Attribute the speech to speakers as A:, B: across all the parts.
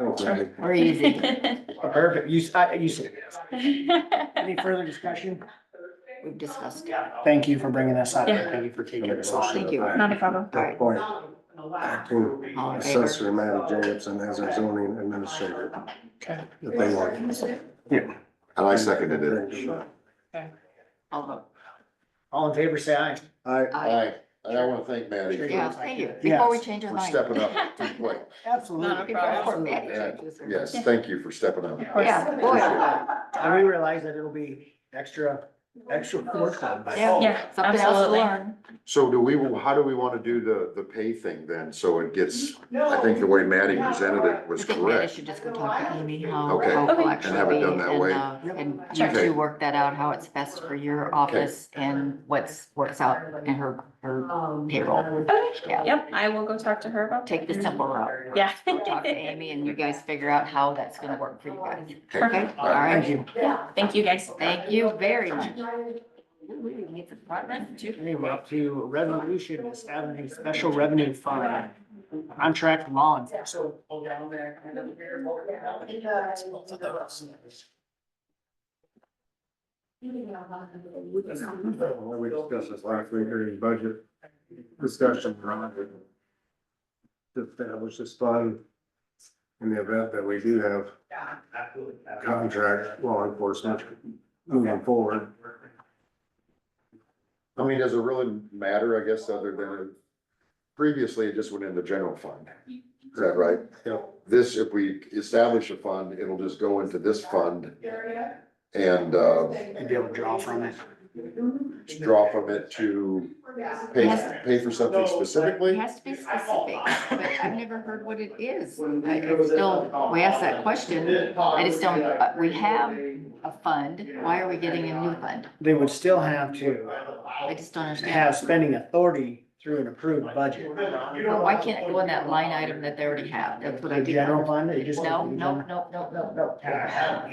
A: Okay.
B: We're easy.
A: Perfect. You, s- I- you, s- any further discussion?
B: We've discussed it.
A: Thank you for bringing this up.
C: Yeah.
A: Thank you for taking this on.
B: Thank you.
C: Not a problem.
B: All
D: That
B: right.
D: point, acting
B: All in favor?
D: assessor Matt Jacobson as our zoning administrator,
A: Okay.
D: if they want.
E: And I seconded it.
B: All vote.
A: All in favor, say aye.
D: I,
E: Uh,
B: Aye.
E: And I want to thank Maddie
A: Sure.
E: for-
B: Yeah, thank you. Before we change our
E: for
B: mind.
E: stepping up too quick.
A: Absolutely.
B: Before Maddie
A: Absolutely.
E: Yeah,
B: changes her mind.
E: Yes, thank you for stepping up.
B: Yeah, boy.
A: And we realize that it'll be extra, extra workload. but-
B: Yeah.
C: Yeah,
B: Something else to
C: absolutely.
B: learn.
E: So do we, how do we want to do the, the pay thing then? So it gets, I think the way Maddie presented it
B: I
E: was
B: think Maddie
E: correct.
B: should just go talk to Amy how,
E: Okay.
B: how
C: Okay.
B: collection
E: And have it done that
B: and,
E: way.
B: uh, And you
C: Sure.
B: two work that out, how it's best for your office and what's, works out in her, her payroll.
C: Okay,
B: Yeah.
C: yep, I will go talk to her about.
B: Take the
C: that.
B: simple route.
C: Yeah.
B: Go Talk to Amy and you guys figure out how that's gonna work for you guys.
E: Okay.
B: Okay, all
A: Thank
B: right.
A: you.
C: Thank you, guys.
B: Thank you very much. We need some apartment, too.
A: Okay, we're up to resolution establishing special revenue fund, contract law enforcement.
D: we discussed this last week during budget discussion around it. To establish this fund in the event that we do have contract law enforcement moving forward.
E: I mean, does it really matter, I guess, other than previously it just went in the general fund? Is that right?
D: Yep.
E: This, if we establish a fund, it'll just go into this fund and, uh,
A: And be able to draw from it.
B: Mm-hmm.
E: draw from it to pay, pay for something
B: It
E: specifically?
B: has to be specific, but I've never heard what it is. I I still, we asked that question. I just don't, uh, we have a fund, why are we getting a new fund?
A: They would still have to
B: I just don't understand.
A: have spending authority through an approved budget.
B: Well, Why can't it go in that line item that they already have? That's what I
A: The
B: do.
A: general fund, they just.
B: No, no, no, no, no, no.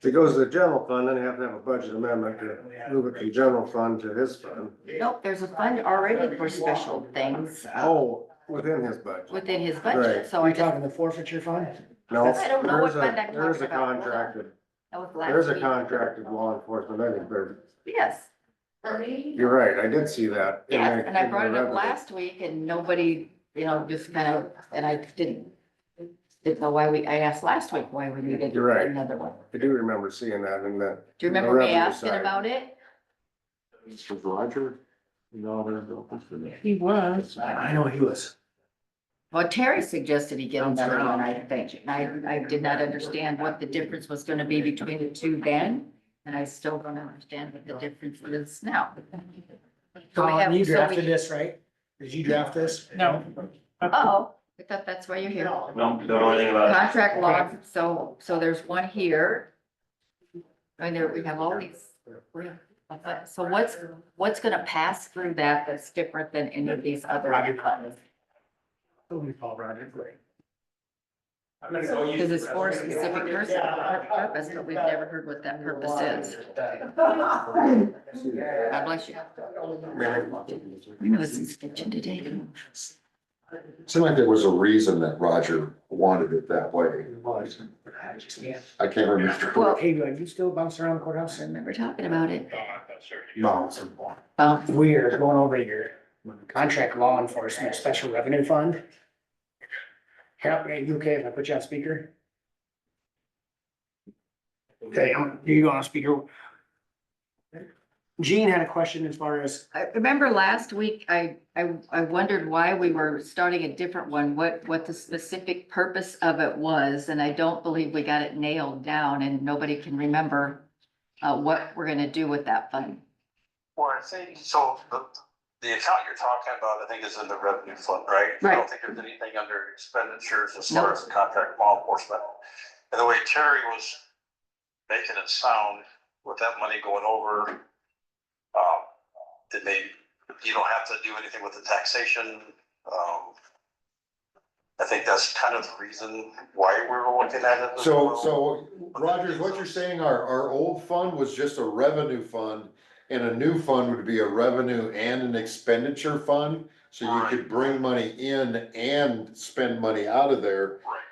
D: If it goes to the general fund, then you have to have a budget amendment to move it from general fund to his fund.
B: Nope, there's a fund already for special things
D: Oh, within his budget.
B: within his
D: Right.
B: budget, so
A: Are
B: I
A: you
B: just,
A: talking the forfeiture fund?
D: No,
B: I don't know
D: there's
B: what fund I'm
D: a,
B: talking
D: there's a
B: about. Hold on.
D: contracted,
B: that was last
D: there's a
B: week.
D: contracted law enforcement, I think there-
B: Yes.
D: you're right, I did see that. in
B: Yes,
D: the-
B: and I
D: in the
B: brought it up
D: revenue.
B: last week and nobody, you know, just kind of, and I didn't. Didn't know why we, I asked last week why we needed
D: You're right.
B: another one.
D: I do remember seeing that in that.
B: Do you
D: The
B: remember me
D: revenue
B: asking
D: side.
B: about it?
E: Was Roger? No, there's.
C: He was.
A: I know he was.
B: Well, Terry suggested he get
A: Bounced
B: another
A: around.
B: one, I think. And I, I did not understand what the difference was gonna be between the two then. And I still don't understand what the difference is now. So we have-
A: Colin, you
B: so we-
A: drafted this, right? Did you draft this?
C: No.
B: Uh-oh, oh, I thought that's why you're here.
F: Don't, don't know anything about it.
B: Contract law, so, so there's one here. And there, we have all these. So what's, what's gonna pass through that that's different than any of these other funds?
A: Who we call Roger Gray.
B: Because it's for a specific person, for a purpose, but we've never heard what that purpose is. God bless you. You know, it's kitchen today.
E: Seemed like there was a reason that Roger wanted it that way. I can't remember.
B: Well-
A: Hey, do you still bounce around the courthouse?
B: I remember talking about it.
D: No.
B: Um,
A: We're going over your contract law enforcement special revenue fund. Help, are you okay if I put you on speaker? Okay, I'm- you go on speaker. Gene had a question as far as,
B: I remember last week, I, I, I wondered why we were starting a different one, what, what the specific purpose of it was, and I don't believe we got it nailed down, and nobody can remember uh, what we're gonna do with that fund.
F: Well, I think, so the, the account you're talking about, I think is in the revenue fund, right? I
B: Right.
F: don't think there's anything under expenditures as
B: No.
F: far as the contract law enforcement. And the way Terry was making it sound with that money going over, um, that they, you don't have to do anything with the taxation, um, I think that's kind of the reason why we were looking at it. as
E: So,
F: well.
E: so Rogers, what you're saying, our, our old fund was just a revenue fund and a new fund would be a revenue and an expenditure fund? So you could bring money in and spend money out of there.
F: Right.